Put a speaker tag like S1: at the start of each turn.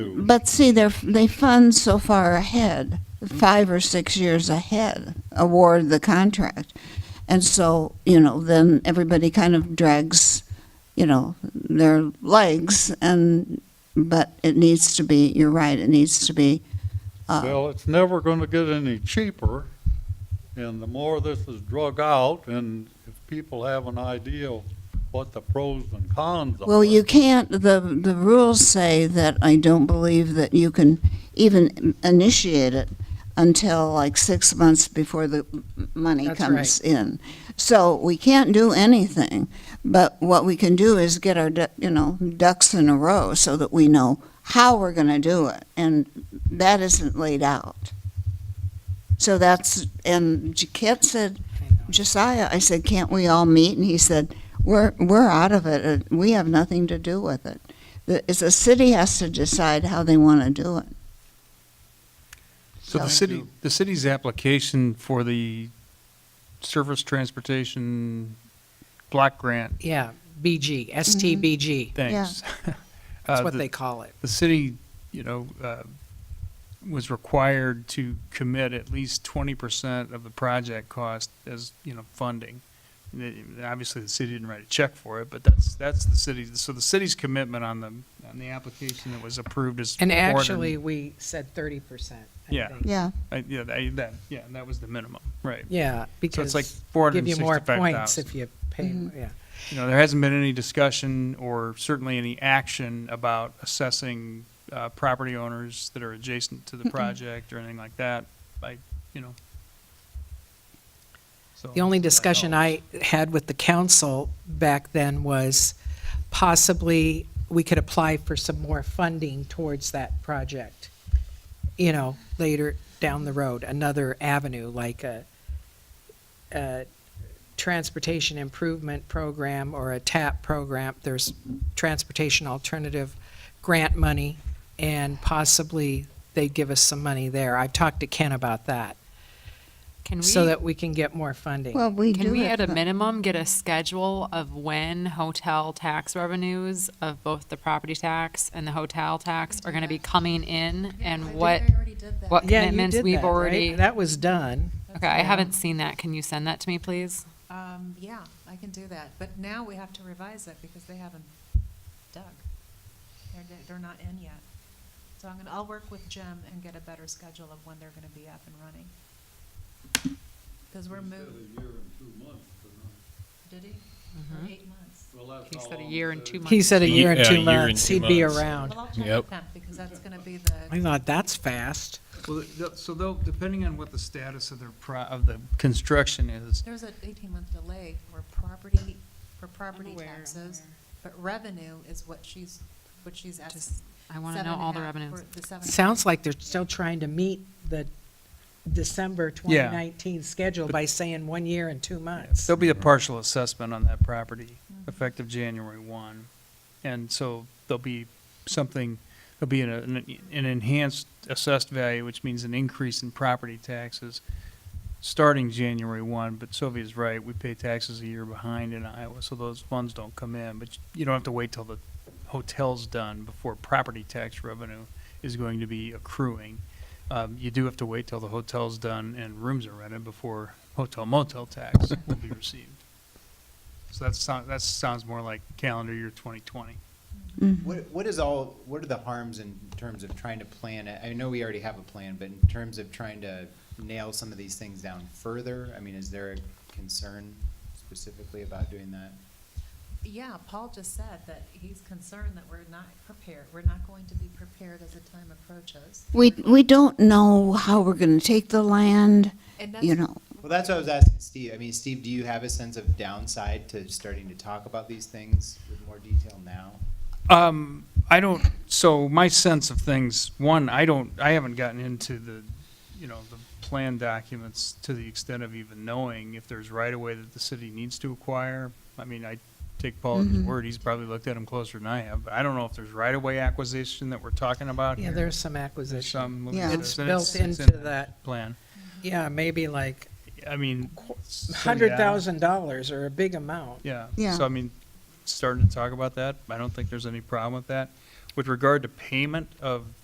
S1: But see, they're, they fund so far ahead, five or six years ahead, award the contract. And so, you know, then everybody kind of drags, you know, their legs and, but it needs to be, you're right, it needs to be, uh,
S2: Well, it's never gonna get any cheaper, and the more this is drug out, and if people have an idea of what the pros and cons are.
S1: well, you can't, the, the rules say that I don't believe that you can even initiate it until like six months before the money
S3: That's
S1: comes in. So we can't do anything, but what we can do is get our, du- you know, ducks in a row so that we know how we're going to do it, and that isn't laid out. So that's, and Kit said, Josiah, I said, can't we all meet? And he said, we're, we're out of it, Uh, we have nothing to do with it. The, it's the city has to decide how they want to do it.
S4: So the
S1: Thank
S4: city,
S2: you.
S4: the city's application for the surface transportation block grant,
S3: Yeah, BG, STBG,
S4: thanks.
S3: that's
S4: Uh,
S3: what
S4: the-
S3: they call it.
S4: The city, you know, uh, was required to commit at least twenty percent of the project cost as, you know, funding. And it- and Obviously, the city didn't write a check for it, but that's, that's the city, so the city's commitment on the, on the application that was approved is.
S3: And
S4: more than-
S3: actually, we said thirty percent, I
S4: Yeah.
S3: think.
S1: Yeah.
S4: I- Yeah, I- that, yeah, that was the minimum, right.
S3: Yeah,
S4: So it's
S3: because
S4: like four hundred
S3: give
S4: and
S3: you more
S4: sixty-five
S3: points
S4: thousand.
S3: if you pay,
S1: Mhm.
S3: yeah.
S4: you know, there hasn't been any discussion or certainly any action about assessing uh, property owners that are adjacent to the project or anything like that. I, you know. So-
S3: The only discussion I had with the council back then was possibly we could apply for some more funding towards that project. You know, later down the road, another avenue like a, a transportation improvement program or a TAP program. There's transportation alternative grant money and possibly they'd give us some money there. I've talked to Ken about that
S5: Can we,
S3: so that we can get more funding.
S1: Well, we do
S5: can we
S1: it,
S5: at a
S1: but-
S5: minimum get a schedule of when hotel tax revenues of both the property tax and the hotel tax are gonna be coming in and what, what
S3: Yeah, you
S5: commitments
S3: did
S5: we've
S3: that, right?
S5: already?
S3: That was done.
S5: Okay, I haven't seen that. Can you send that to me, please?
S6: Um, yeah, I can do that, but now we have to revise it because they haven't dug. They're, they're not in yet. So I'm gonna, I'll work with Jim and get a better schedule of when they're gonna be up and running. Cause we're
S2: Said
S6: moving,
S2: a year and two months, but
S6: did he? Or
S5: Mm-hmm.
S6: eight months?
S2: not- well, that's
S5: He
S2: how
S5: said a
S2: long
S5: year
S2: it
S5: and
S2: is.
S5: two months.
S3: He said a
S7: Ye-
S3: year and
S7: yeah, a
S3: two
S7: year and
S3: months,
S7: two
S3: he'd be
S7: months.
S3: around.
S6: Well, I'll check
S7: Yep.
S6: with them because that's gonna be
S3: I
S6: the,
S3: thought, that's fast.
S4: Well, th- so they'll, depending on what the status of their pro, of the construction is,
S6: there's an eighteen month delay for property, for property
S5: aware, I'm
S6: taxes.
S5: aware.
S6: But revenue is what she's, what she's asking.
S5: Just- I wanna know all the revenues.
S3: Sounds like they're still trying to meet the December 2019 schedule by saying one year and two months.
S4: there'll be a partial assessment on that property effective January one. And so there'll be something, there'll be an, an an enhanced assessed value, which means an increase in property taxes starting January one, but Sylvia's right, we pay taxes a year behind in Iowa, so those funds don't come in, but you don't have to wait till the hotel's done before property tax revenue is going to be accruing. Um, you do have to wait till the hotel's done and rooms are rented before hotel motel tax will be received. So that sounds, that sounds more like calendar year twenty twenty.
S1: Mm-hmm.
S8: What, what is all, what are the harms in terms of trying to plan it? I know we already have a plan, but in terms of trying to nail some of these things down further, I mean, is there a concern specifically about doing that?
S6: Yeah, Paul just said that he's concerned that we're not prepared, we're not going to be prepared as the time approaches.
S1: We, we don't know how we're going to take the land,
S6: And
S1: you
S6: that's,
S1: know.
S8: Well, that's what I was asking Steve. I mean, Steve, do you have a sense of downside to starting to talk about these things with more detail now?
S4: Um, I don't, so my sense of things, one, I don't, I haven't gotten into the, you know, the plan documents to the extent of even knowing if there's right away that the city needs to acquire. I mean, I take Paul at his word, he's probably looked at them closer than I have, but I don't know if there's right away acquisition that we're talking about
S3: Yeah,
S4: here.
S3: there's some
S4: There's
S3: acquisition.
S4: some.
S1: Yeah.
S3: It's
S4: but
S3: built
S4: it's in
S3: into
S4: the
S3: that,
S4: Plan.
S3: yeah, maybe like
S4: I mean. so, yeah.
S3: $100,000 or a big amount.
S4: Yeah.
S1: Yeah.
S4: So I mean, starting to talk about that, I don't think there's any problem with that. With regard to payment of